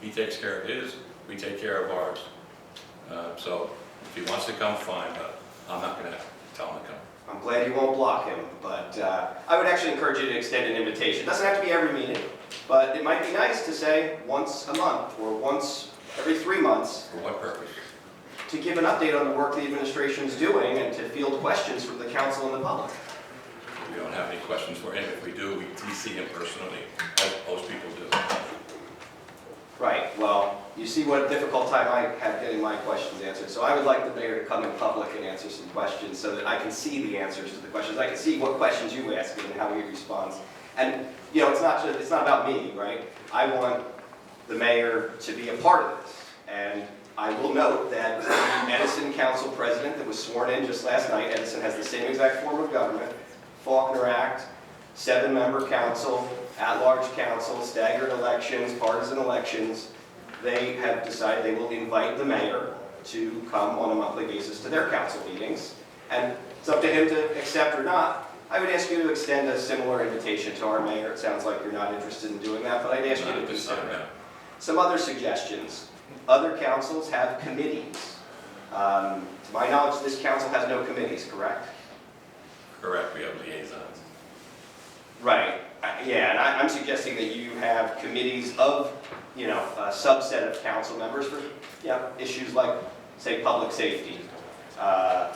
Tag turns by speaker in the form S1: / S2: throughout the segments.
S1: He takes care of his, we take care of ours. Uh, So if he wants to come, fine, but I'm not gonna tell him to come.
S2: I'm glad you won't block him, but uh, I would actually encourage you to extend an invitation. Doesn't have to be every meeting, but it might be nice to say once a month or once every three months
S1: For what purpose?
S2: to give an update on the work the administration's doing and to field questions from the council and the public.
S1: We don't have any questions for him. If we do, we we see him personally, as most people do.
S2: Right, well, you see what a difficult time I have getting my questions answered. So I would like the mayor to come in public and answer some questions so that I can see the answers to the questions. I can see what questions you ask and how he responds. And, you know, it's not, ju- it's not about me, right? I want the mayor to be a part of this. And I will note that the Edison Council President that was sworn in just last night, Edison has the same exact form of government, Faulkner Act, seven-member council, at-large council, staggered elections, partisan elections, they have decided they will invite the mayor to come on a monthly basis to their council meetings. And it's up to him to accept or not. I would ask you to extend a similar invitation to our mayor. It sounds like you're not interested in doing that, but I'd ask you
S1: Not
S2: to
S1: at this
S2: consider
S1: time,
S2: it.
S1: no.
S2: Some other suggestions. Other councils have committees. Um, To my knowledge, this council has no committees, correct?
S1: Correct, we have liaisons.
S2: Right. I- Uh, Yeah, and I- I'm suggesting that you have committees of, you know, a subset of council members for, yeah, issues like, say, public safety. Uh,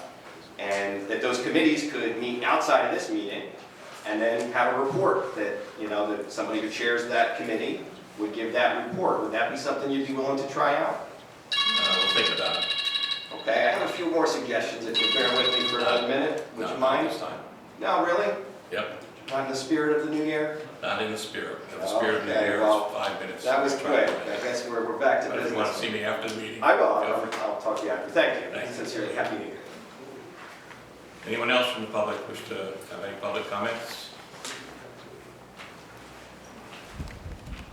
S2: And that those committees could meet outside of this meeting and then have a report that, you know, that somebody who chairs that committee would give that report. Would that be something you'd be willing to try out?
S1: Uh, We'll think about it.
S2: Okay, I have a few more suggestions, if you bear with me for another minute, would
S1: Not
S2: you
S1: at
S2: mind?
S1: this time.
S2: No, really?
S1: Yep,
S2: Not in the spirit of the new year?
S1: not in the spirit. In the spirit of the
S2: Oh, Okay,
S1: year,
S2: well,
S1: it's five minutes.
S2: That was
S1: Five
S2: quick, I
S1: minutes.
S2: guess we're, we're back to
S1: But if you want to
S2: business.
S1: see me after the meeting.
S2: I will,
S1: go for
S2: I'll,
S1: it.
S2: I'll talk to you after, thank
S1: Thank
S2: you,
S1: you.
S2: sincerely, happy new year.
S1: Anyone else from the public wish to have any public comments?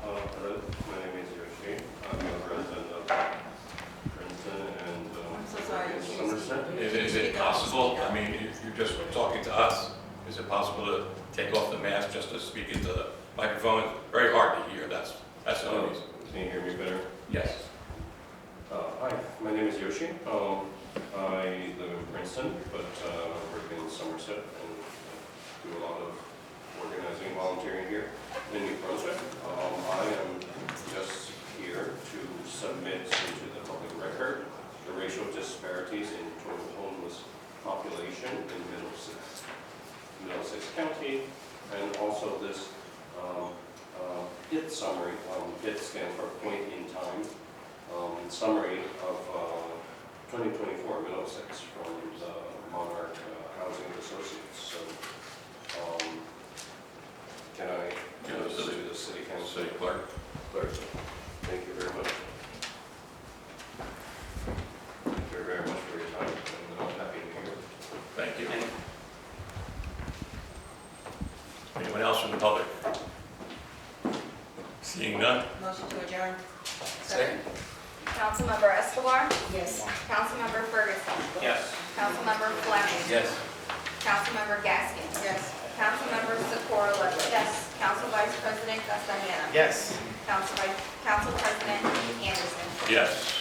S3: Uh, Hello, my name is Yoshi. I'm a resident of Princeton and. uh,
S4: I'm so sorry.
S3: in
S4: Excuse me.
S3: Somerset.
S1: Is is it possible, I mean, if you're just talking to us, is it possible to take off the mask just to speak into the microphone? It's Very hard to hear, that's, that's the only reason.
S3: Can you hear me better?
S1: Yes.
S3: Uh, Hi, my name is Yoshi. Um, I live in Princeton, but uh, work in Somerset and do a lot of organizing, volunteering here in New Brunswick. Um, I am just here to submit into the public record the racial disparities in total homeless population in Middlesex, Middlesex County, and also this um, uh, IT summary. Um, IT stands for point in time, um, summary of uh, 2024 Middlesex from the Monarch uh, Housing Associates. So, um, can I,
S1: Yeah, the city-
S3: to the city council
S1: City clerk.
S3: clerk? Thank you very much. Thank you very much for your time, and uh, happy New Year.
S1: Thank you. Anyone else from the public? Seeing none?
S4: Motion to adjourn.
S1: Second.
S5: Councilmember Escobar,
S4: Yes.
S5: Councilmember Ferguson. Yes. Councilmember Fleming.
S1: Yes.
S5: Councilmember Gaskin.
S4: Yes.
S5: Councilmember Socorro Ludwig. Yes. Council Vice President Castaneda.
S2: Yes.
S5: Council Vice, Council President Anderson.
S1: Yes.